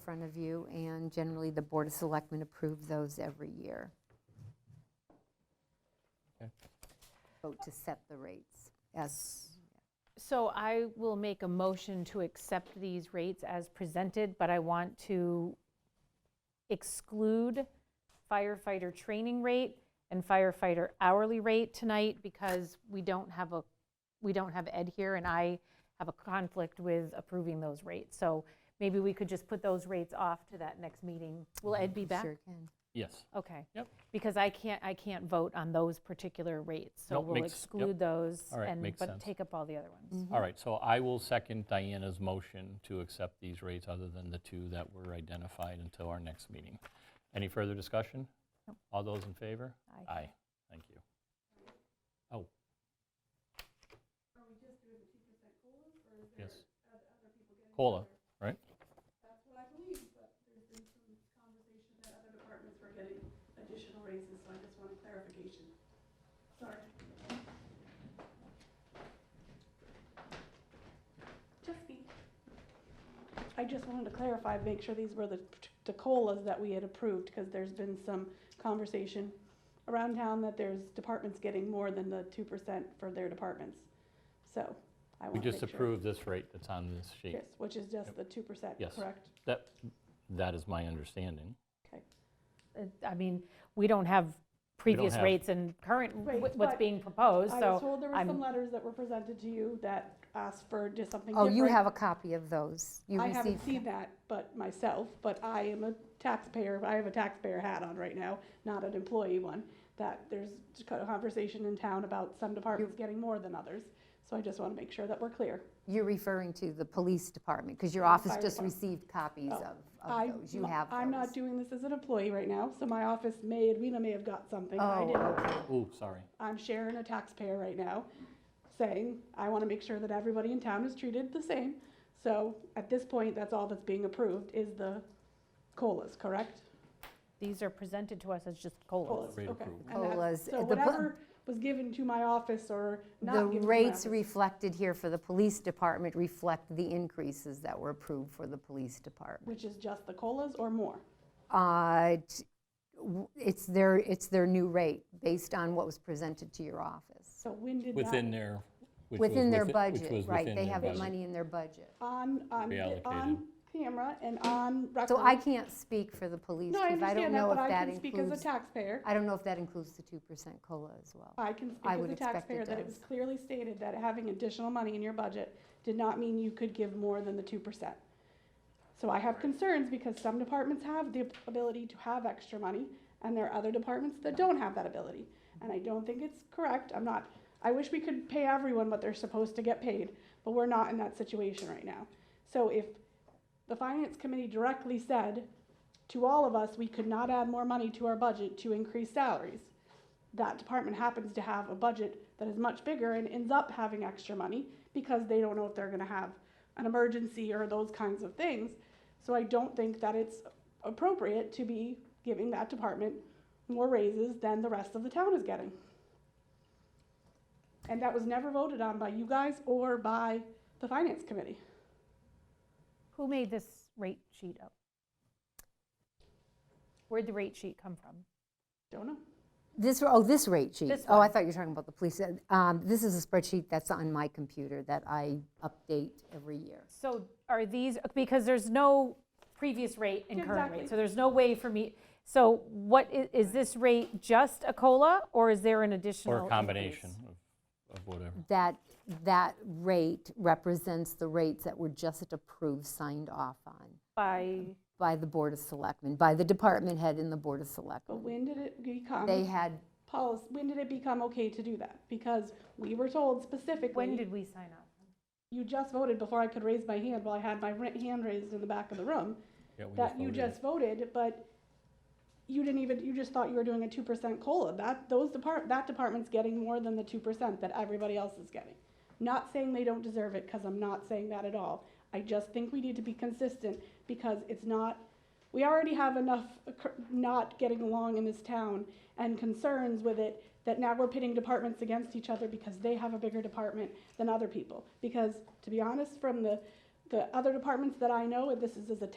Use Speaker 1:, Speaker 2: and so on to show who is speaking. Speaker 1: front of you, and generally, the Board of Selectmen approve those every year.
Speaker 2: Okay.
Speaker 1: Vote to set the rates as,
Speaker 3: So I will make a motion to accept these rates as presented, but I want to exclude firefighter training rate and firefighter hourly rate tonight because we don't have a, we don't have Ed here and I have a conflict with approving those rates. So maybe we could just put those rates off to that next meeting. Will Ed
Speaker 2: Mm-hmm.
Speaker 3: be back?
Speaker 1: sure can.
Speaker 2: Yes.
Speaker 3: Okay.
Speaker 2: Yep.
Speaker 3: Because I can't, I can't vote on those particular rates. So
Speaker 2: Nope,
Speaker 3: we'll
Speaker 2: makes- yep.
Speaker 3: exclude those
Speaker 2: All right,
Speaker 3: and-
Speaker 2: makes
Speaker 3: but
Speaker 2: sense.
Speaker 3: take up all the other
Speaker 1: Mm-hmm.
Speaker 3: ones.
Speaker 2: All right, so I will second Diana's motion to accept these rates other than the two that were identified until our next meeting. Any further discussion? All those in favor?
Speaker 3: Aye.
Speaker 2: Aye, thank you. Oh. Yes. COLA, right?
Speaker 4: additional raises, so I just want clarification. Sorry. Just me. I just wanted to clarify, make sure these were the, the COLAs that we had approved, because there's been some conversation around town that there's departments getting more than the two percent for their departments. So I
Speaker 2: We
Speaker 4: want to
Speaker 2: just
Speaker 4: make sure.
Speaker 2: approved this rate that's on this sheet.
Speaker 4: Yes, which is just the two percent,
Speaker 2: Yes.
Speaker 4: correct?
Speaker 2: That, that is my understanding.
Speaker 4: Okay.
Speaker 3: Uh, I mean, we don't have previous
Speaker 2: have-
Speaker 3: rates and current,
Speaker 4: Right,
Speaker 3: wh- what's
Speaker 4: but
Speaker 3: being proposed,
Speaker 4: I was
Speaker 3: so,
Speaker 4: told there were
Speaker 3: I'm-
Speaker 4: some letters that were presented to you that asked for just something
Speaker 1: Oh,
Speaker 4: different.
Speaker 1: you have a copy of those. You
Speaker 4: I
Speaker 1: received.
Speaker 4: haven't seen that, but myself, but I am a taxpayer, I have a taxpayer hat on right now, not an employee one. That there's just kind of conversation in town about some departments getting more than others, so I just wanna make sure that we're clear.
Speaker 1: You're referring to the police department, because your
Speaker 4: Yeah, the
Speaker 1: office
Speaker 4: fire
Speaker 1: just
Speaker 4: department.
Speaker 1: received copies
Speaker 4: Oh,
Speaker 1: of,
Speaker 4: I-
Speaker 1: of those. You have
Speaker 4: I'm not
Speaker 1: those.
Speaker 4: doing this as an employee right now, so my office may, Edwina may have got something, I
Speaker 1: Oh,
Speaker 4: didn't.
Speaker 2: Ooh, sorry.
Speaker 4: I'm sharing a taxpayer right now, saying, I want to make sure that everybody in town is treated the same. So at this point, that's all that's being approved is the COLAs, correct?
Speaker 3: these are presented to us as just COLAs.
Speaker 2: Rate
Speaker 4: okay.
Speaker 2: approved.
Speaker 4: And that's-
Speaker 1: COLAs,
Speaker 4: So
Speaker 1: the bu-
Speaker 4: whatever was given to my office or not
Speaker 1: The
Speaker 4: given to my
Speaker 1: rates
Speaker 4: office.
Speaker 1: reflected here for the police department reflect the increases that were approved for the police department.
Speaker 4: Which is just the COLAs or more?
Speaker 1: Uh, t- w- It's their, it's their new rate, based on what was presented to your office.
Speaker 4: So when did that?
Speaker 2: Within their, which was
Speaker 1: Within their
Speaker 2: within- which
Speaker 1: budget,
Speaker 2: was
Speaker 1: right,
Speaker 2: within
Speaker 1: they
Speaker 2: their
Speaker 1: have the
Speaker 2: budget.
Speaker 1: money in their budget.
Speaker 4: On, on,
Speaker 2: Reallocated.
Speaker 4: on camera and on record.
Speaker 1: So I can't speak for the police,
Speaker 4: No, I
Speaker 1: because I don't
Speaker 4: understand that,
Speaker 1: know
Speaker 4: but
Speaker 1: if
Speaker 4: I
Speaker 1: that
Speaker 4: can speak as a
Speaker 1: includes,
Speaker 4: taxpayer.
Speaker 1: I don't know if that includes the 2% COLA as well.
Speaker 4: I can speak
Speaker 1: I
Speaker 4: as
Speaker 1: would
Speaker 4: a
Speaker 1: expect it
Speaker 4: taxpayer that it was
Speaker 1: does.
Speaker 4: clearly stated that having additional money in your budget did not mean you could give more than the two percent. So I have concerns because some departments have the ability to have extra money and there are other departments that don't have that ability. And I don't think it's correct. I'm not, I wish we could pay everyone what they're supposed to get paid, but we're not in that situation right now. So if the finance committee directly said to all of us, we could not add more money to our budget to increase salaries that department happens to have a budget that is much bigger and ends up having extra money because they don't know if they're gonna have an emergency or those kinds of things. So I don't think that it's appropriate to be giving that department more raises than the rest of the town is getting. And that was never voted on by you guys or by the finance committee.
Speaker 3: Who made this rate sheet up? Where'd the rate sheet come from?
Speaker 4: Don't know.
Speaker 1: This, oh, this rate sheet?
Speaker 3: This
Speaker 1: Oh, I
Speaker 3: one.
Speaker 1: thought you were talking about the police. Um, This is a spreadsheet that's on my computer that I update every year.
Speaker 3: So are these, because there's no previous rate and current
Speaker 4: Exactly.
Speaker 3: rate, so there's no way for me, so what, i- is this rate just a COLA, or is there an additional?
Speaker 2: Or a combination
Speaker 3: increase?
Speaker 2: of of whatever.
Speaker 1: That, that rate represents the rates that were just approved, signed off on
Speaker 3: By,
Speaker 1: by the Board of Selectmen, by the department head and the Board of
Speaker 4: But
Speaker 1: Selectmen.
Speaker 4: when did it become?
Speaker 1: They had,
Speaker 4: Policy, when did it become okay to do that? Because we were told specifically.
Speaker 3: when did we sign up?
Speaker 4: you just voted before I could raise my hand while I had my ra- hand raised in the back of the room,
Speaker 2: Yeah, we
Speaker 4: that you
Speaker 2: voted it.
Speaker 4: just voted, but you didn't even, you just thought you were doing a two percent COLA. That, those depart, that department's getting more than the two percent that everybody else is getting. Not saying they don't deserve it, cause I'm not saying that at all. I just think we need to be consistent, because it's not, we already have enough occur- not getting along in this town and concerns with it, that now we're pitting departments against each other because they have a bigger department than other people. Because, to be honest, from the, the other departments that I know, and this is as a